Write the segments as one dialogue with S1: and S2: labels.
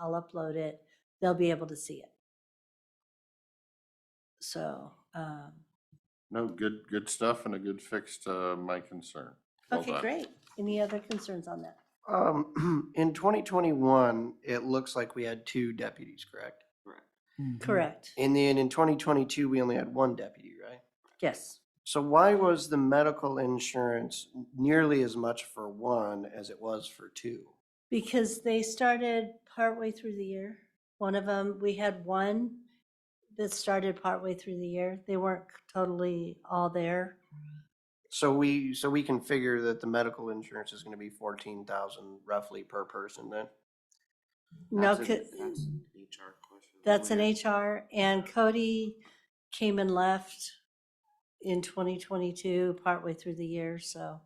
S1: I'll upload it. They'll be able to see it. So, um,
S2: No, good, good stuff and a good fix to my concern. Well
S1: okay,
S2: done.
S1: great. Any other concerns on that?
S3: Um, in twenty twenty-one, it looks like we had two deputies, correct?
S1: Correct.
S3: And then in twenty twenty-two, we only had one deputy, right?
S1: Yes.
S3: So why was the medical insurance nearly as much for one as it was for two?
S1: Because they started partway through the year. One of them, we had one that started partway through the year. They weren't totally all there.
S3: So we, so we can figure that the medical insurance is gonna be fourteen thousand roughly per person then?
S1: No,
S4: That's
S1: co-
S4: an- That's an HR question.
S1: that's an
S4: Weird.
S1: HR and Cody came and left in 2022, partway through the year, so.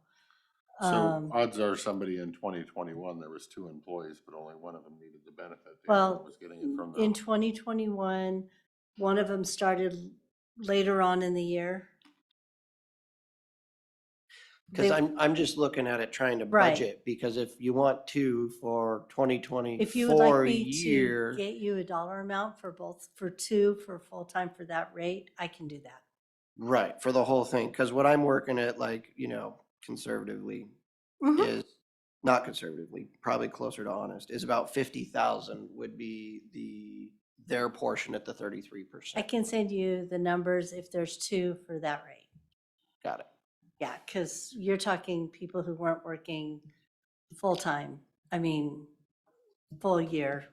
S2: So
S1: um,
S2: odds are somebody in twenty twenty-one, there was two employees, but only one of them needed the benefit. The other
S1: Well,
S2: one Was getting it from
S1: In
S2: the,
S1: 2021, one of them started later on in the year.
S3: Cause
S1: They-
S3: I'm, I'm just looking at it trying to
S1: Right.
S3: budget, because if you want two for twenty
S1: If you would like
S3: twenty-four
S1: me to
S3: year,
S1: get you a dollar amount for both, for two, for full-time for that rate, I can do that.
S3: right, for the whole thing, cause what I'm working at, like, you know, conservatively,
S1: Mm-hmm.
S3: is not conservatively, probably closer to honest, is about fifty thousand would be the, their portion at the thirty-three
S1: I
S3: percent.
S1: can send you the numbers if there's two for that rate.
S3: Got it.
S1: Yeah, because you're talking people who weren't working full-time, I mean, full year.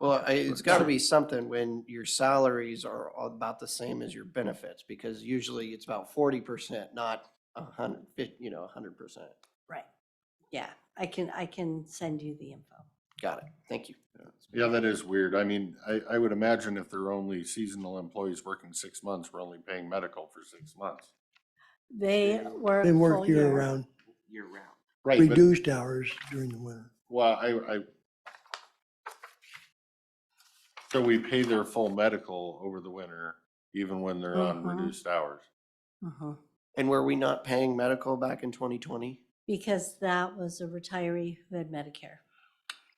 S3: Well, I, it's gotta be something when your salaries are all about the same as your benefits, because usually it's about forty percent, not a hundred, fif- you know, a hundred percent.
S1: Right. Yeah, I can, I can send you the info.
S3: Got it. Thank you.
S2: yeah, that is weird. I mean, I, I would imagine if they're only seasonal employees working six months, we're only paying medical for six months.
S1: They work.
S5: They
S1: full
S5: work year-round,
S4: Year round.
S2: Right, but,
S5: reduced hours during the winter.
S2: well, I, I. So we pay their full medical over the winter, even when they're on
S1: Mhm.
S2: reduced hours.
S1: Mhm.
S3: And were we not paying medical back in twenty twenty?
S1: Because that was a retiree who had Medicare.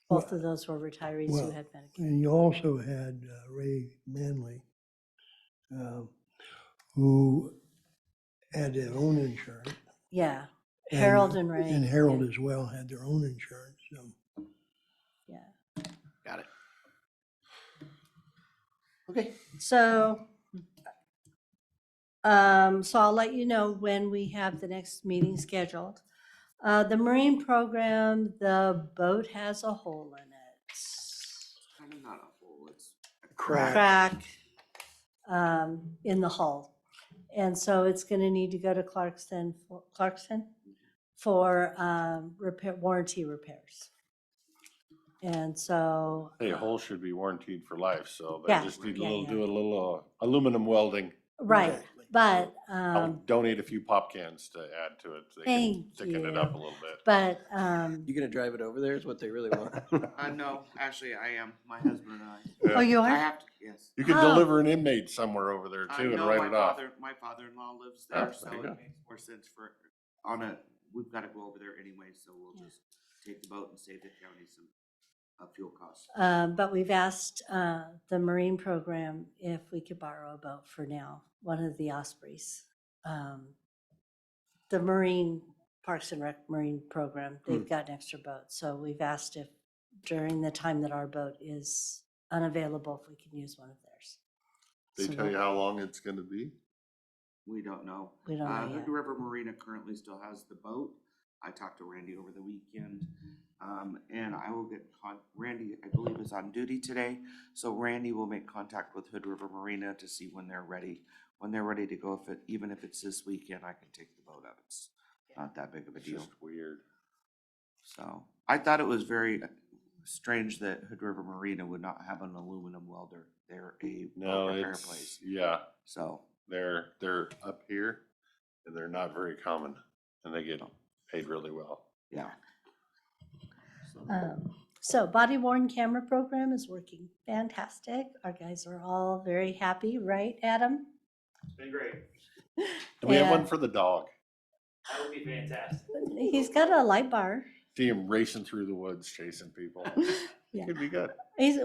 S1: Both of those were retirees who
S5: well,
S1: had Medicare.
S5: And you also had uh, Ray Manley, um, who had their own insurance.
S1: Yeah, Harold and Ray.
S5: And Harold
S1: yeah,
S5: as well had their own insurance, so.
S1: Yeah.
S3: Got it. Okay.
S1: So, um, so I'll let you know when we have the next meeting scheduled. Uh, the marine program, the boat has a hole in it.
S4: Kind of not a whole, it's.
S1: Crack, um, in the hull. And so it's gonna need to go to Clarkston, for- Clarkston for, um, repair, warranty repairs. And so.
S2: Hey, a hole should be warranted for life, so they
S1: Yeah,
S2: just need a
S1: yeah,
S2: little,
S1: yeah.
S2: do a little uh, aluminum welding.
S1: Right,
S5: Exactly.
S1: but,
S2: I'll
S1: um,
S2: donate a few pop cans to add to it. so they can
S1: Thank
S2: Thicken it
S1: you.
S2: up a little bit.
S1: but, um.
S3: You gonna drive it over there is what they really want.
S4: I know, Uh, actually, I am, my husband and I.
S1: Oh, you
S4: I
S1: are?
S4: have to, yes.
S2: You could
S1: Oh.
S2: deliver an inmate somewhere over there
S4: I
S2: too and
S4: know my
S2: write it off.
S4: father- My father-in-law lives
S2: Ah,
S4: there, so
S2: there you go.
S4: it makes more sense for, on a, we've gotta go over there anyway, so we'll
S1: Yeah.
S4: just take the boat and save the county some, uh, fuel costs.
S1: Uh, But we've asked uh, the Marine program if we could borrow a boat for now, one of the Ospreys. Um, The Marine Parks and Rec Marine Program,
S2: Hmm.
S1: they've got an extra boat. So we've asked if during the time that our boat is unavailable, if we can use one of theirs.
S2: They
S1: So
S2: tell you
S1: we'll-
S2: how long it's gonna be?
S4: We don't know.
S1: We don't
S4: Uh,
S1: know
S4: Hood
S1: yet.
S4: River Marina currently still has the boat. I talked to Randy over the weekend. Um, and I will get con, Randy, I believe is on duty today. So Randy will make contact with Hood River Marina to see when they're ready. When they're ready to go, if it, even if it's this weekend, I can take the boat out. It's not that big of a
S2: It's
S4: deal.
S2: just weird.
S4: So I thought it was very uh, strange that Hood River Marina would not have an aluminum welder. They're a
S2: No,
S4: boat repair
S2: it's,
S4: place.
S2: yeah,
S4: So
S2: they're, they're up here and they're not very common and they get paid really well.
S4: Yeah.
S1: Um, So body worn camera program is working fantastic. Our guys are all very happy, right, Adam?
S6: Been great.
S2: Do we have one
S1: And
S2: for the dog?
S6: That would be fantastic.
S1: He's got a light bar.
S2: See him racing through the woods chasing people.
S1: Yeah.
S2: Could be good.
S1: He's,